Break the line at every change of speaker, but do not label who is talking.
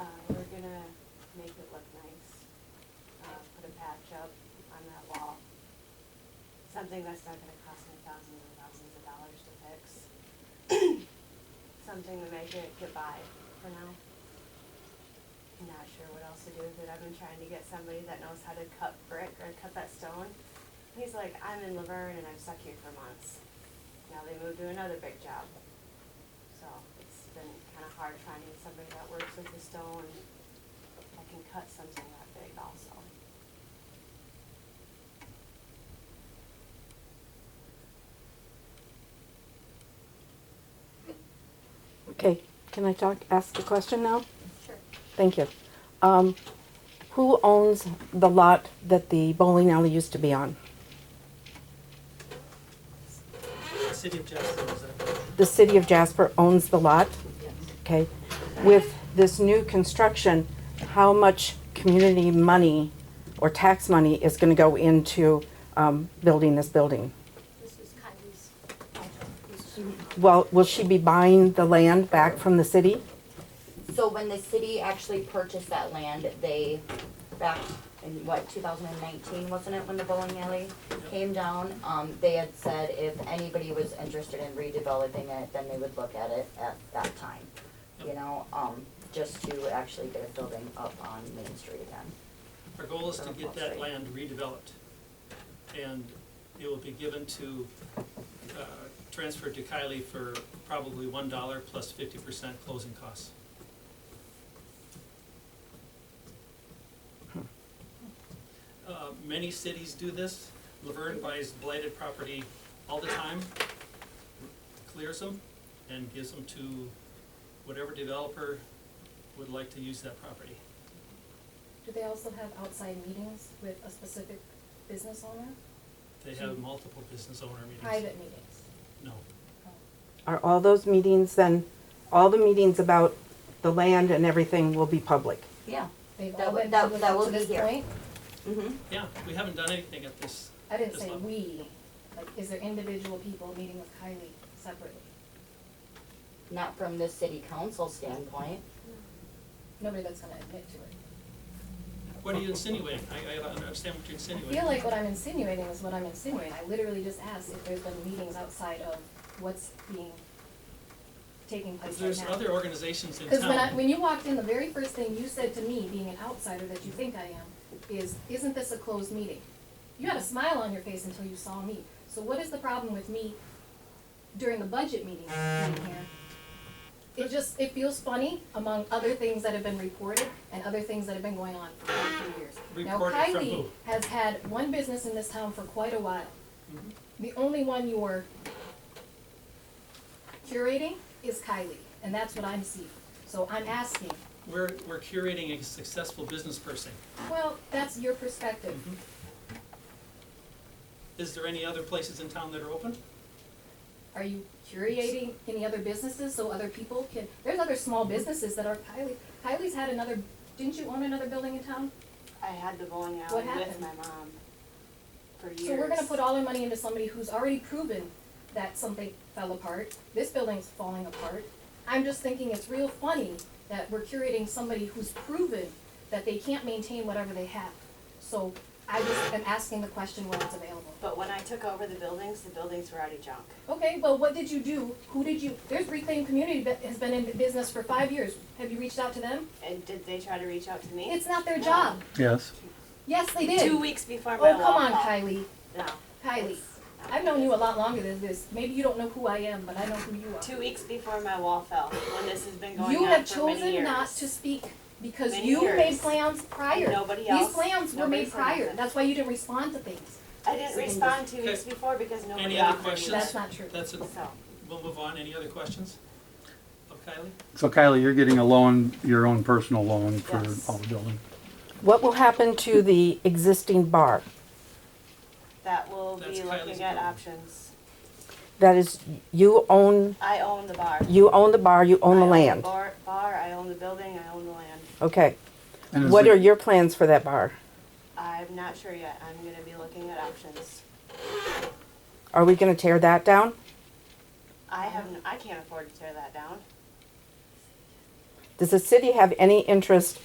Uh, Uh, something that's not gonna cost me thousands and thousands of dollars to fix. Something to make it get by for now. I'm Not sure what else to do with it, I've been trying to get somebody that knows how to cut brick or cut that stone. He's like, I'm in Laverne and I'm stuck here for months. Now they moved to another big job. So it's been kinda hard finding somebody that works with the stone, that can cut something that big also.
Okay, can I talk, ask a question now?
Sure.
Thank you. Um, who owns the lot that the bowling alley used to be on?
City of Jasper, is that?
The city of Jasper owns the lot? Okay, with this new construction, how much community money or tax money is gonna go into, um, building this building?
This is Kylie's.
Well, will she be buying the land back from the city?
So when the city actually purchased that land, they, back in what, two thousand and nineteen, wasn't it, when the bowling alley came down? Um, they had said if anybody was interested in redeveloping it, then they would look at it at that time. You
Yep.
know, um, just to actually get a building up on Main Street again.
Our goal is to get that land redeveloped. And it will be given to, uh, transferred to Kylie for probably one dollar plus fifty percent closing costs. Uh, many cities do this. Laverne buys blighted property all the time, clears them, and gives them to whatever developer would like to use that property.
Do they also have outside meetings with a specific business owner?
They have multiple business owner meetings.
Private meetings?
No,
Are all those meetings then, all the meetings about the land and everything will be public?
Yeah.
They've
That
all
would-
been
that-
public
that
up
will
to
be
this
here.
point?
Mm-hmm.
yeah, we haven't done anything at this.
I didn't
this
say
level.
we, like, is there individual people meeting with Kylie separately?
Not from the city council standpoint.
Nobody that's gonna admit to it.
What are you insinuating? I, I don't understand what you're
I
insinuating.
feel like what I'm insinuating is what I'm insinuating, I literally just asked if there's been meetings outside of what's being, taking place right now.
There's other organizations in
Because when I,
town.
when you walked in, the very first thing you said to me, being an outsider that you think I am, is, isn't this a closed meeting? You had a smile on your face until you saw me. So what is the problem with me during the budget meeting being here? It just, it feels funny among other things that have been reported and other things that have been going on for quite a few years.
Reported from who?
Now Kylie has had one business in this town for quite a while.
Mm-hmm.
The only one you're curating is Kylie, and that's what I'm seeing. So I'm asking,
We're, we're curating a successful business person.
well, that's your perspective.
Is there any other places in town that are open?
Are you curating any other businesses so other people can, there's other small businesses that are Kylie, Kylie's had another, didn't you own another building in town?
I had the bowling alley
What
with
happened?
my mom for years.
So we're gonna put all our money into somebody who's already proven that something fell apart. This building's falling apart. I'm just thinking it's real funny that we're curating somebody who's proven that they can't maintain whatever they have. So I just am asking the question when it's available.
But when I took over the buildings, the buildings were already junk.
Okay, well, what did you do? Who did you, there's Reclaim Community that has been in business for five years. Have you reached out to them?
And did they try to reach out to me?
It's not their job.
Yes.
Yes, they did.
Two weeks before
Oh,
my wall
come on,
fell.
Kylie,
No.
Kylie.
it's not
I've known you a lot longer than this. Maybe you don't know who I am, but I know who you are.
Two weeks before my wall fell, when this has been going
You
on
have
for many
chosen not
years.
to speak because
Many
you made
years.
plans prior.
Nobody else,
These plans were
nobody
made
said
prior,
nothing.
that's why you didn't respond to things.
I didn't respond two weeks
Okay.
before because nobody
Any other
offered me.
questions?
Oh, That's not true.
That's, it.
So,
we'll move on. Any other questions of Kylie?
So Kylie, you're getting a loan, your own personal loan for
Yes.
all the building.
What will happen to the existing bar
that will be
That's Kylie's
looking at
problem.
options.
that is you own
I own the bar.
you own the bar, you own the
I own the
land.
bar, bar, I own the building, I own the land.
Okay.
And is
What
it-
are your plans for that bar?
I'm not sure yet, I'm gonna be looking at options.
Are we going to tear that down?
I have, n- I can't afford to tear that down.
Does the city have any interest